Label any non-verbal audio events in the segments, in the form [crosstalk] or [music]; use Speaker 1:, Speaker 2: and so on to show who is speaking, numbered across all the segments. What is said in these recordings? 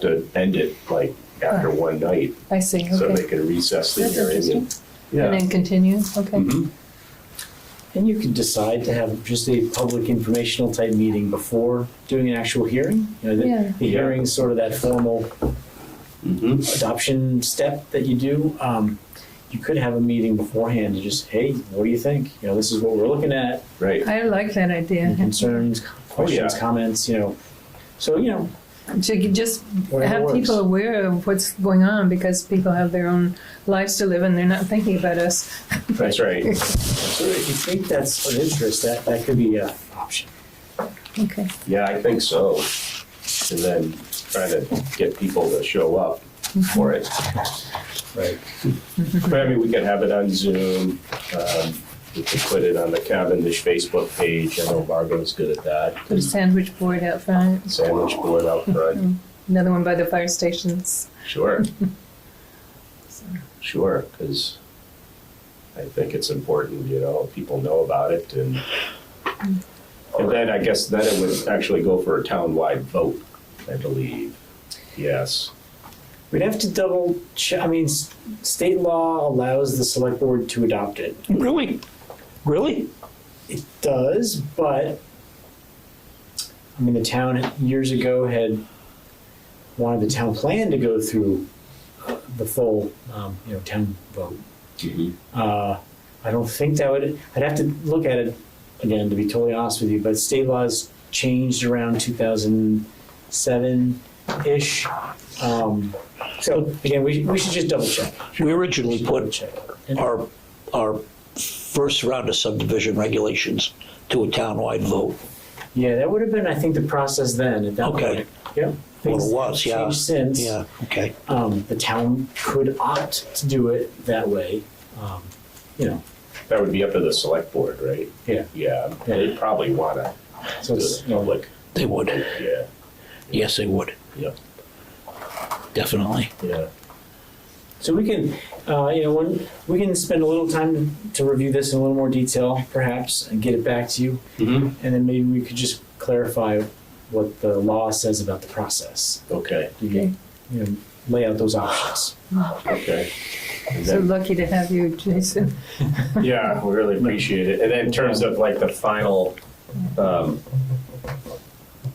Speaker 1: to end it like after one night,
Speaker 2: I see,
Speaker 1: so they
Speaker 2: okay.
Speaker 1: can recess the
Speaker 2: That's
Speaker 1: hearing.
Speaker 2: interesting.
Speaker 1: and-
Speaker 2: And
Speaker 1: Yeah.
Speaker 2: then continue, okay.
Speaker 1: Mhm.
Speaker 3: And you can decide to have just a public informational type meeting before doing an actual hearing. You know, the,
Speaker 2: Yeah.
Speaker 3: the hearing is sort of that formal
Speaker 1: Mhm.
Speaker 3: adoption step that you do. Um, you could have a meeting beforehand and just, hey, what do you think? You know, this is what we're looking at.
Speaker 1: Right.
Speaker 2: I like that idea.
Speaker 3: Any concerns, questions,
Speaker 1: yeah.
Speaker 3: comments, you know. So, you know,
Speaker 2: To g- just
Speaker 3: Whatever
Speaker 2: have
Speaker 3: works.
Speaker 2: people aware of what's going on because people have their own lives to live and they're not thinking about us.
Speaker 1: That's right.
Speaker 3: so if you think that's of interest, that, that could be an option.
Speaker 2: Okay,
Speaker 1: Yeah, I think so. And then try to get people to show up for it.
Speaker 2: Mm-hmm.
Speaker 3: Right.
Speaker 1: But I mean, we could have it on Zoom. Um, we could put it on the Cavendish Facebook page. I know Margot's good at
Speaker 3: Mm-hmm.
Speaker 2: put a
Speaker 1: that.
Speaker 2: sandwich board out front,
Speaker 1: Sandwich board out front.
Speaker 2: another one by the fire stations.
Speaker 1: Sure,
Speaker 2: [laughs] So,
Speaker 1: sure, because I think it's important, you know, people know about it and
Speaker 2: Mm.
Speaker 1: and then I guess then it would actually go for a townwide vote, I believe. Yes.
Speaker 3: We'd have to double check. I mean, s- state law allows the select board to adopt it.
Speaker 4: Really? Really?
Speaker 3: It does, but I mean, the town years ago had wanted the town plan to go through uh, the full, um, you know, town vote.
Speaker 4: Mm-hmm.
Speaker 3: Uh, I don't think that would, I'd have to look at it again, to be totally honest with you, but state laws changed around two thousand seven-ish. Um, so again, we, we should just double check.
Speaker 4: We originally put
Speaker 3: Check.
Speaker 4: our, our first round of subdivision regulations to a townwide vote.
Speaker 3: Yeah, that would have been, I think, the process then at that
Speaker 4: Okay.
Speaker 3: point. Yep.
Speaker 4: What
Speaker 3: Things
Speaker 4: it was,
Speaker 3: have
Speaker 4: yeah.
Speaker 3: Changed since.
Speaker 4: Yeah, okay.
Speaker 3: Um, the town could opt to do it that way. Um, you know,
Speaker 1: That would be up to the select board, right?
Speaker 3: Yeah.
Speaker 1: Yeah, they'd probably wanna
Speaker 3: so
Speaker 1: do
Speaker 3: it's
Speaker 1: the
Speaker 3: you know,
Speaker 1: public,
Speaker 4: They would.
Speaker 1: yeah,
Speaker 4: Yes, they would.
Speaker 1: Yep.
Speaker 4: Definitely.
Speaker 1: yeah.
Speaker 3: So we can, uh, you know, when, we can spend a little time to review this in a little more detail, perhaps, and get it back to you.
Speaker 1: Mm-hmm.
Speaker 3: And then maybe we could just clarify what the law says about the process.
Speaker 1: Okay,
Speaker 3: You can, you know, lay out those options.
Speaker 1: okay. And
Speaker 2: So
Speaker 1: then-
Speaker 2: lucky to have you, Jason.
Speaker 1: Yeah, we really appreciate it. And then in terms of like the final um,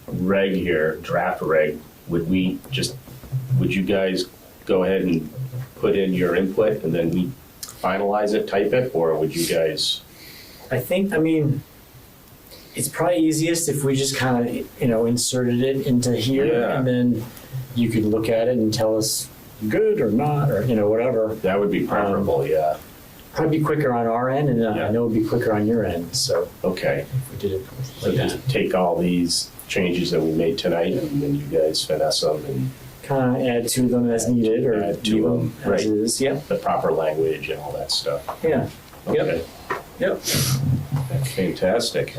Speaker 1: reg here, draft reg, would we just, would you guys go ahead and put in your input and then we finalize it, type it, or would you guys?
Speaker 3: I think, I mean, it's probably easiest if we just kind of, you know, inserted it into here
Speaker 1: Yeah.
Speaker 3: and then you could look at it and tell us good or not or, you know, whatever.
Speaker 1: That would be preferable, yeah.
Speaker 3: Probably be quicker on our end and uh,
Speaker 1: Yeah.
Speaker 3: I know it'd be quicker on your end. So
Speaker 1: Okay,
Speaker 3: if we did it
Speaker 1: so
Speaker 3: like that.
Speaker 1: just take all these changes that we made tonight and then you guys finesse them and
Speaker 3: Kind of add to them as needed or
Speaker 1: Add to
Speaker 3: leave
Speaker 1: them, right.
Speaker 3: as is. Yep.
Speaker 1: the proper language and all that stuff.
Speaker 3: Yeah. Yep.
Speaker 1: Okay,
Speaker 3: Yep.
Speaker 1: Fantastic.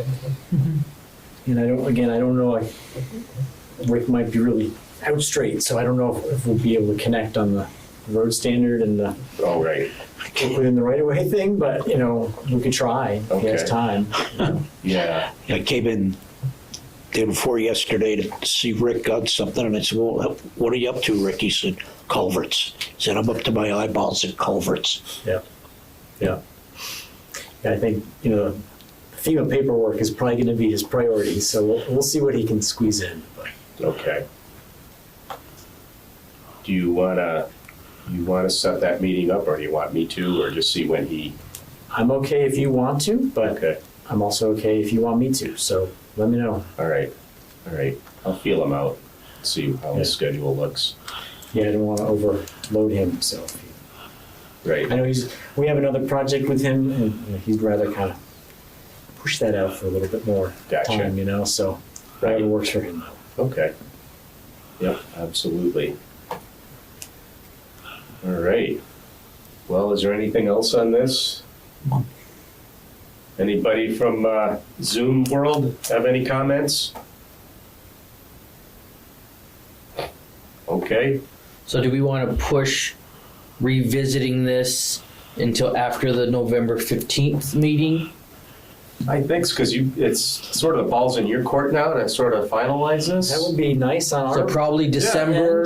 Speaker 3: And I don't, again, I don't know, I, Rick might be really out straight, so I don't know if, if we'll be able to connect on the road standard and the
Speaker 1: All right,
Speaker 3: work within the right of way thing, but, you know, we could try. If he has
Speaker 1: Okay.
Speaker 3: time.
Speaker 1: yeah.
Speaker 4: I came in day before yesterday to see Rick on something, and I said, well, what are you up to, Rick? He said, culverts. He said, I'm up to my eyeballs in culverts.
Speaker 3: Yeah. Yeah. Yeah, I think, you know, FEMA paperwork is probably going to be his priority, so we'll, we'll see what he can squeeze in. but-
Speaker 1: Okay. Do you wanna, you wanna set that meeting up, or do you want me to, or just see when he?
Speaker 3: I'm okay if you want to, but
Speaker 1: Okay,
Speaker 3: I'm also okay if you want me to, so let me know.
Speaker 1: all right, all right, I'll feel him out, see how his
Speaker 3: Yeah.
Speaker 1: schedule looks.
Speaker 3: Yeah, I don't want to overload him, so. I
Speaker 1: Right,
Speaker 3: know he's, we have another project with him, and you know, he'd rather kind of push that out for a little bit more
Speaker 1: Gotcha.
Speaker 3: time, you know, so whatever works for him.
Speaker 1: okay. Yep, absolutely. All right. Well, is there anything else on this? Anybody from uh, Zoom world have any comments? Okay,
Speaker 5: So do we want to push revisiting this until after the November 15th meeting?
Speaker 1: I think it's because you, it's sort of the ball's in your court now to sort of finalize this.
Speaker 3: That would be nice on our
Speaker 5: So probably December